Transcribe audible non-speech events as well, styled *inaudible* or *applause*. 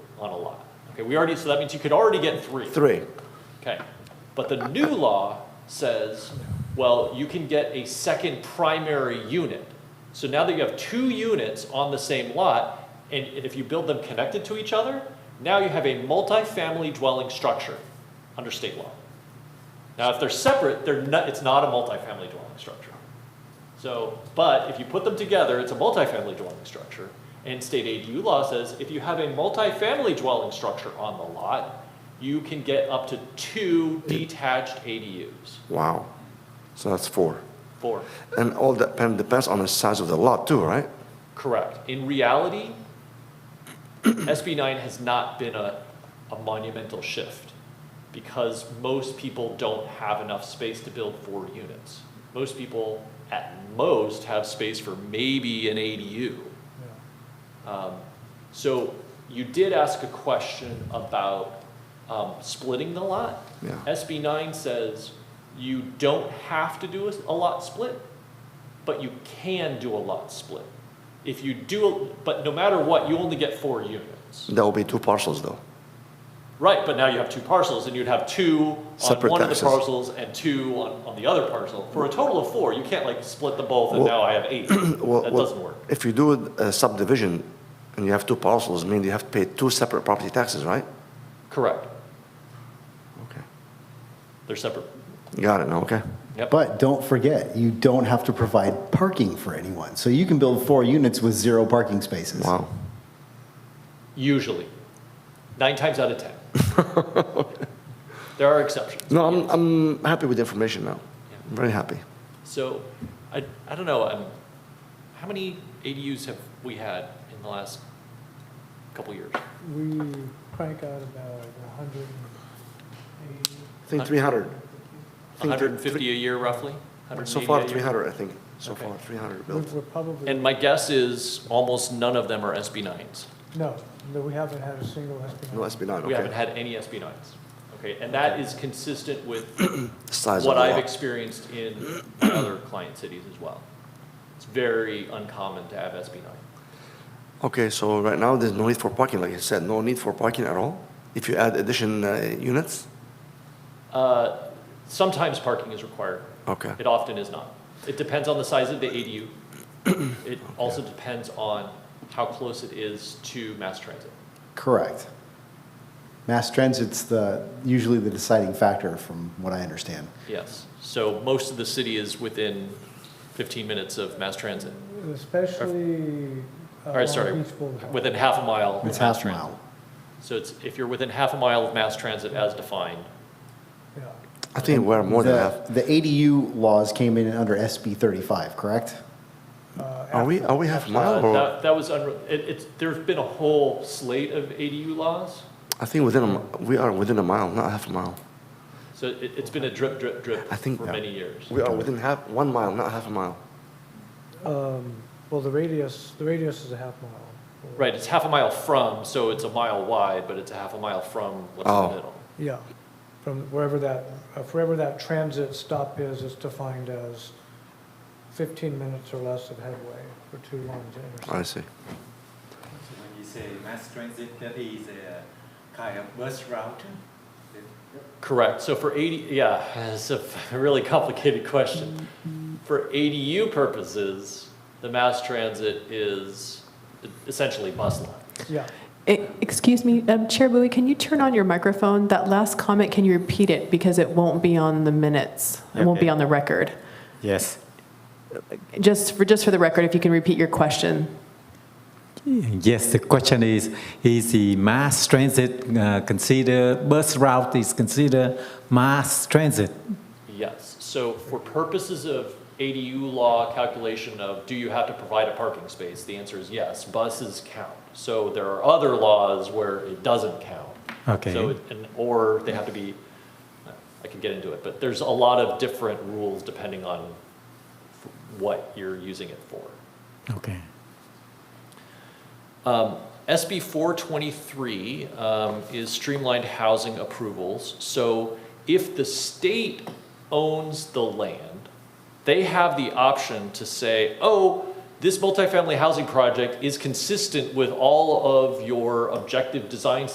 on a lot. Okay, we already, so that means you could already get three. Three. Okay, but the new law says, well, you can get a second primary unit. So now that you have two units on the same lot, and, and if you build them connected to each other, now you have a multifamily dwelling structure under state law. Now, if they're separate, they're not, it's not a multifamily dwelling structure. So, but if you put them together, it's a multifamily dwelling structure. And state ADU law says if you have a multifamily dwelling structure on the lot, you can get up to two detached ADUs. Wow. So that's four. Four. And all that depend- depends on the size of the lot too, right? Correct. In reality, SB nine has not been a, a monumental shift because most people don't have enough space to build four units. Most people at most have space for maybe an ADU. Um, so you did ask a question about, um, splitting the lot. Yeah. SB nine says you don't have to do a, a lot split, but you can do a lot split. If you do, but no matter what, you only get four units. That will be two parcels though. Right, but now you have two parcels, and you'd have two on Separate one of the taxes. parcels and two on, on the other parcel, for a total of four. You can't like split them both, and now Well- I have eight. *clears throat* Well, That well, doesn't work. If you do a subdivision and you have two parcels, mean you have to pay two separate property taxes, right? Correct. Okay. They're separate. Got it now, okay? Yep. But don't forget, you don't have to provide parking for anyone. So you can build four units with zero parking spaces. Wow. Usually. Nine times out of 10. *laughs* There are exceptions. No, I'm, I'm happy with the information now. I'm very happy. So, I, I don't know, um, how many ADUs have we had in the last couple years? We crank out about a hundred and eighty. I think 300. I think hundred and fifty a year roughly? So far, 180 a year? 300, I think. So Okay. far, 300 We're- built. We're probably. And my guess is almost none of them are SB nines. No, no, we haven't had a single SB. No, that's been done, We haven't okay. had any SB nines. Okay, and that is consistent with *clears throat* Size of what the I've lot. experienced in my other client cities as well. It's very uncommon to have SB nine. Okay, so right now, there's no need for parking, like you said, no need for parking at all? If you add addition uh, units? Uh, Sometimes parking is required. Okay. It often is not. It depends on the size of the ADU. *clears throat* It also depends on how close it is to mass transit. Correct. Mass transit's the, usually the deciding factor from what I understand. Yes. So most of the city is within 15 minutes of mass transit, Especially. uh, All right, sorry. within half a mile. of It's mass half transit. mile. So it's, if you're within half a mile of mass transit as defined, I think we're more than half. The the ADU laws came in under SB 35, correct? Uh, Are we, are we half mile uh, or? that, that was, unre- it, it's, there's been a whole slate of ADU laws. I think within a, mi- we are within a mile, not half a mile. So it, it's been a drip, drip, drip I think for that- many years. We are within half, one mile, not half a mile. Um, well, the radius, the radius is a half mile. Right, it's half a mile from, so it's a mile wide, but it's a half a mile from what's in Oh. the middle. Yeah, from wherever that, uh, wherever that transit stop is, it's defined as fifteen minutes or less of headway for two lanes to intersect. I see. So when you say mass transit, that is a kind of bus route? Correct, so for AD, yeah, it's a really complicated question. For ADU purposes, the mass transit is essentially bus line. Yeah, E- Excuse me, um, Chair Bowie, can you turn on your microphone? That last comment, can you repeat it? Because it won't be on the minutes. It won't be Okay. on the record. Yes. Just for, just for the record, if you can repeat your question. Yes, the question is, is the mass transit uh, considered, bus route is considered mass transit? Yes, so for purposes of ADU law calculation of do you have to provide a parking space, the answer is yes, buses count. So there are other laws where it doesn't count. Okay. So, it- and, or they have to be, I can get into it, but there's a lot of different rules depending on f- what you're using it for. Okay. Um, SB 423 um, is streamlined housing approvals. So if the state owns the land, they have the option to say, oh, this multifamily housing project is consistent with all of your objective design